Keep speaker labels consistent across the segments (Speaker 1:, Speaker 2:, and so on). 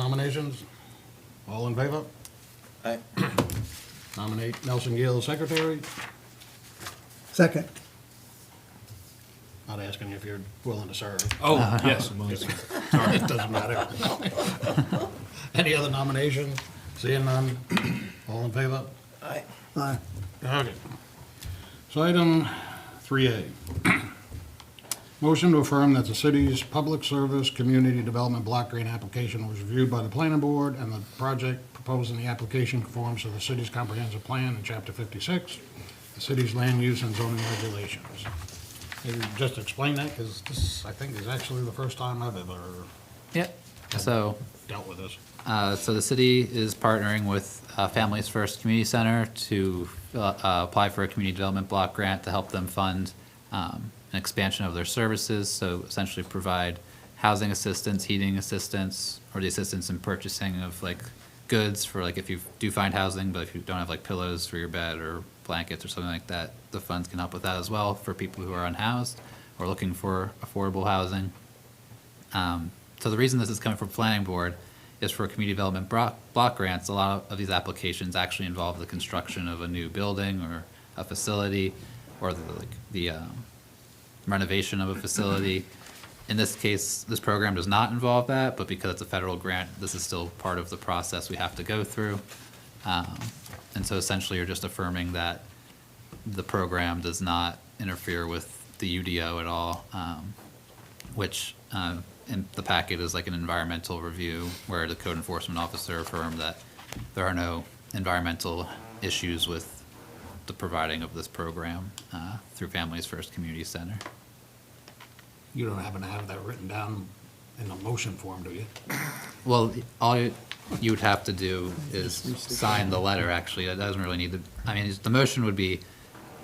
Speaker 1: Commissions. All in favor?
Speaker 2: Aye.
Speaker 1: Nominate Nelson Gill as secretary.
Speaker 3: Second.
Speaker 1: Not asking if you're willing to serve.
Speaker 4: Oh,
Speaker 3: Uh-huh.
Speaker 4: yes.
Speaker 1: Sorry, it doesn't matter. Any other nomination? Seeing none? All in favor?
Speaker 2: Aye.
Speaker 3: Aye.
Speaker 1: Okay. So item three A. Motion to affirm that the city's public service community development block grant application was reviewed by the planning board and the project proposed in the application conforms to the city's comprehensive plan in chapter fifty-six, the city's land use and zoning regulations. Maybe just explain that, because this, I think, is actually the first time I've ever
Speaker 5: Yep. So,
Speaker 1: dealt with this.
Speaker 5: uh, so the city is partnering with uh, Families First Community Center to uh, uh, apply for a community development block grant to help them fund um, an expansion of their services, so essentially provide housing assistance, heating assistance, or the assistance in purchasing of like goods for like if you do find housing, but if you don't have like pillows for your bed or blankets or something like that, the funds can help with that as well for people who are unhoused or looking for affordable housing. Um, So the reason this is coming from planning board is for community development bro- block grants, a lot of these applications actually involve the construction of a new building or a facility or the, like, the um, renovation of a facility. In this case, this program does not involve that, but because it's a federal grant, this is still part of the process we have to go through. Um, And so essentially, you're just affirming that the program does not interfere with the UDO at all. Um, which um, in the packet is like an environmental review where the code enforcement officer affirmed that there are no environmental issues with the providing of this program uh, through Families First Community Center.
Speaker 1: You don't happen to have that written down in a motion form, do you?
Speaker 5: Well, all you you would have to do is sign the letter, actually. That doesn't really need to, I mean, the motion would be,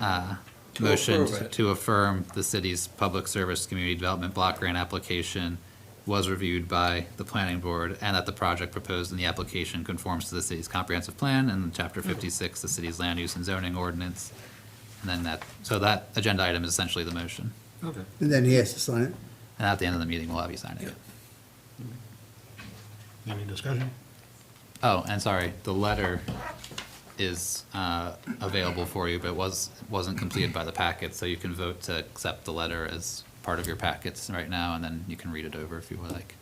Speaker 5: uh,
Speaker 2: To
Speaker 5: motion
Speaker 2: approve it.
Speaker 5: to affirm the city's public service community development block grant application was reviewed by the planning board and that the project proposed in the application conforms to the city's comprehensive plan and
Speaker 2: Mm-hmm.
Speaker 5: chapter fifty-six, the city's land use and zoning ordinance. And then that, so that agenda item is essentially the motion.
Speaker 1: Okay.
Speaker 3: And then he has to sign it.
Speaker 5: And at the end of the meeting, we'll have you sign it.
Speaker 1: Any discussion?
Speaker 5: Oh, and sorry, the letter is uh, available for you, but was, wasn't completed by the packet, so you can vote to accept the letter as part of your packets right now, and then you can read it over if you would like.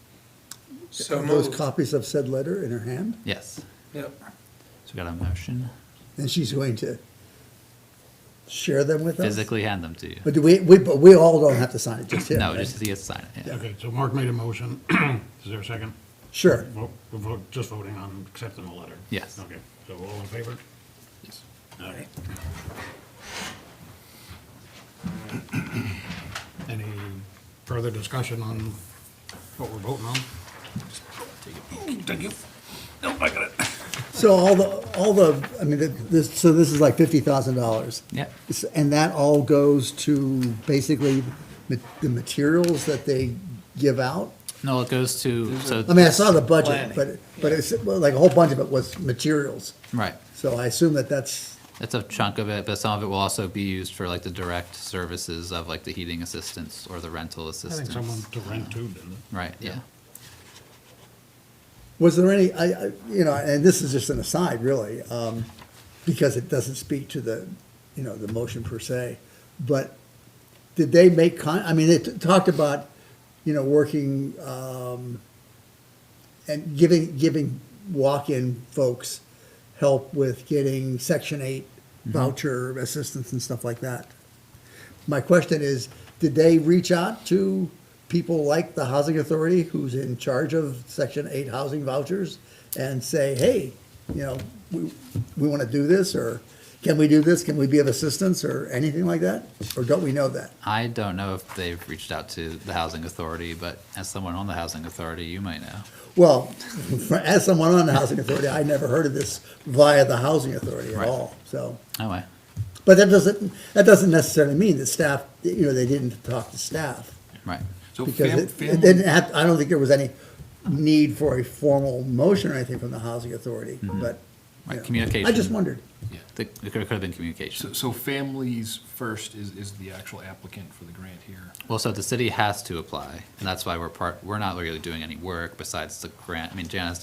Speaker 2: So
Speaker 3: Are Those
Speaker 2: moved.
Speaker 3: copies of said letter in her hand,
Speaker 5: Yes,
Speaker 2: Yep.
Speaker 5: so we got a motion,
Speaker 3: and she's going to share them with us?
Speaker 5: physically hand them to you.
Speaker 3: But do we, we, but we all don't have to sign it, just him,
Speaker 5: No,
Speaker 3: right?
Speaker 5: just to sign it, yeah.
Speaker 1: Okay, so Mark made a motion. Is there a second?
Speaker 3: Sure.
Speaker 1: Vote- We're vote- just voting on accepting the letter?
Speaker 5: Yes.
Speaker 1: Okay, so all in favor? All right. Any further discussion on what we're voting on? Thank you. Nope, I got it.
Speaker 3: So all the, all the, I mean, th- this, so this is like fifty thousand dollars?
Speaker 5: Yeah.
Speaker 3: And that all goes to basically ma- the materials that they give out?
Speaker 5: No, it goes to, so,
Speaker 3: I mean, I saw the budget,
Speaker 2: Planning,
Speaker 3: but, but it's, well, like, a whole bunch of it was materials,
Speaker 5: right,
Speaker 3: so I assume that that's,
Speaker 5: that's a chunk of it, but some of it will also be used for like the direct services of like the heating assistance or the rental
Speaker 1: I think
Speaker 5: assistance.
Speaker 1: someone to rent to, didn't it?
Speaker 5: Right, yeah.
Speaker 3: Was there any, I, I- you know, and this is just an aside, really, um, because it doesn't speak to the, you know, the motion per se, but did they make con, I mean, they t- talked about, you know, working, um, and giving, giving walk-in folks help with getting Section 8 voucher assistance and stuff like that. My question is, did they reach out to people like the Housing Authority, who's in charge of Section 8 housing vouchers, and say, hey, you know, we, we want to do this, or can we do this, can we be of assistance, or anything like that? Or don't we know that?
Speaker 5: I don't know if they've reached out to the housing authority, but as someone on the housing authority, you might know.
Speaker 3: Well, for- as someone on the Housing Authority, I never heard of this via the Housing Authority at
Speaker 5: Right.
Speaker 3: all, so.
Speaker 5: Anyway,
Speaker 3: But that doesn't, that doesn't necessarily mean that staff, you know, they didn't talk to staff.
Speaker 5: right.
Speaker 4: So
Speaker 3: Because
Speaker 4: fam-
Speaker 3: it- it
Speaker 4: family-
Speaker 3: didn't have, I don't think there was any need for a formal motion or anything from the housing authority, but.
Speaker 5: Right,
Speaker 3: yeah.
Speaker 5: communication.
Speaker 3: I just wondered.
Speaker 4: Yeah.
Speaker 5: The- It could have been
Speaker 4: So,
Speaker 5: communication.
Speaker 4: so Families First is, is the actual applicant for the grant here.
Speaker 5: Well, so the city has to apply, and that's why we're part, we're not really doing any work besides the grant. I mean, Janice